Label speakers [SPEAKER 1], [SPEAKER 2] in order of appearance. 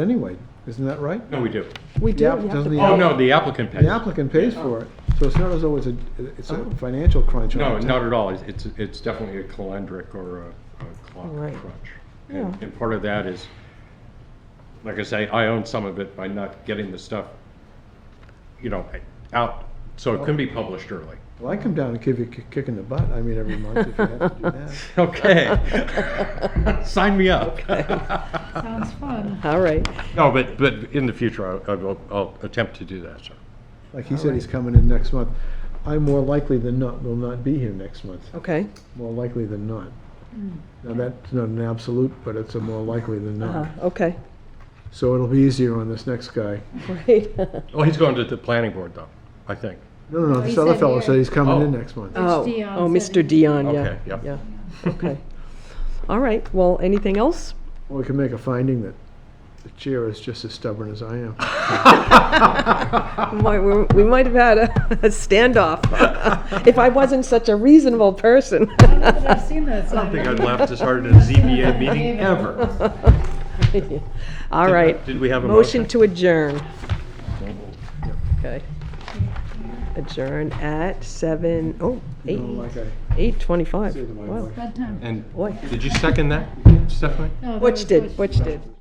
[SPEAKER 1] anyway, isn't that right?
[SPEAKER 2] No, we do.
[SPEAKER 3] We do.
[SPEAKER 1] Yeah,
[SPEAKER 3] we have
[SPEAKER 1] doesn't
[SPEAKER 3] to
[SPEAKER 1] the
[SPEAKER 3] pay.
[SPEAKER 2] Oh, no, the applicant pays.
[SPEAKER 1] The applicant pays for it, so it's not as though it's a, it's
[SPEAKER 4] Oh.
[SPEAKER 1] a financial crunch
[SPEAKER 2] No,
[SPEAKER 1] on the
[SPEAKER 2] not
[SPEAKER 1] town.
[SPEAKER 2] at all. It's- It's, it's definitely a calendric or a a clock
[SPEAKER 3] Right.
[SPEAKER 2] crunch. And,
[SPEAKER 3] Yeah.
[SPEAKER 2] and part of that is, like I say, I own some of it by not getting the stuff, you know, out, so it can be published early.
[SPEAKER 1] Well, I come down and give you a ki- kick in the butt, I mean, every month if you have to do that.
[SPEAKER 2] Okay. Sign me up.
[SPEAKER 4] Sounds fun.
[SPEAKER 3] Oh. All right.
[SPEAKER 2] No, but, but in the future, I I will, I'll attempt to do that, sir.
[SPEAKER 1] Like he said, he's coming in next month. I more likely than not will not be here next month,
[SPEAKER 3] Okay.
[SPEAKER 1] more likely than not.
[SPEAKER 4] Hmm.
[SPEAKER 1] Now, that's not an absolute, but it's a more likely than
[SPEAKER 3] Uh,
[SPEAKER 1] not.
[SPEAKER 4] Uh-huh.
[SPEAKER 3] okay.
[SPEAKER 1] So it'll be easier on this next guy.
[SPEAKER 3] Great.
[SPEAKER 2] Well, he's going to the planning board, though, I think.
[SPEAKER 1] No, no, no,
[SPEAKER 4] Oh, he
[SPEAKER 1] this other
[SPEAKER 4] said
[SPEAKER 1] fellow
[SPEAKER 4] here.
[SPEAKER 1] said he's coming in
[SPEAKER 2] Oh.
[SPEAKER 1] next month.
[SPEAKER 3] oh,
[SPEAKER 4] Dion
[SPEAKER 3] oh,
[SPEAKER 4] said he-
[SPEAKER 3] Mr. Dion. Yeah.
[SPEAKER 2] Okay, yep.
[SPEAKER 3] Yeah. Okay. All right. Well, anything else?
[SPEAKER 1] Well, we can make a finding that the chair is just as stubborn as I am.
[SPEAKER 3] We might, we, we might have had a, a standoff if I wasn't such a reasonable person.
[SPEAKER 4] I don't know that I've seen that
[SPEAKER 2] I think I
[SPEAKER 4] sign.
[SPEAKER 2] laughed as hard at a ZBA meeting ever.
[SPEAKER 3] All right.
[SPEAKER 2] Did we have a motion?
[SPEAKER 3] Motion to adjourn. Okay. Adjourn at seven, oh,
[SPEAKER 1] You
[SPEAKER 3] eight,
[SPEAKER 1] know, like I
[SPEAKER 3] eight twenty-five.
[SPEAKER 1] say to my
[SPEAKER 3] Wow.
[SPEAKER 1] wife.
[SPEAKER 4] Bad time.
[SPEAKER 2] And
[SPEAKER 3] Boy.
[SPEAKER 2] did you second that, Stephanie?
[SPEAKER 4] No, that
[SPEAKER 3] Which
[SPEAKER 4] was
[SPEAKER 3] did, which
[SPEAKER 4] Butch.
[SPEAKER 3] did.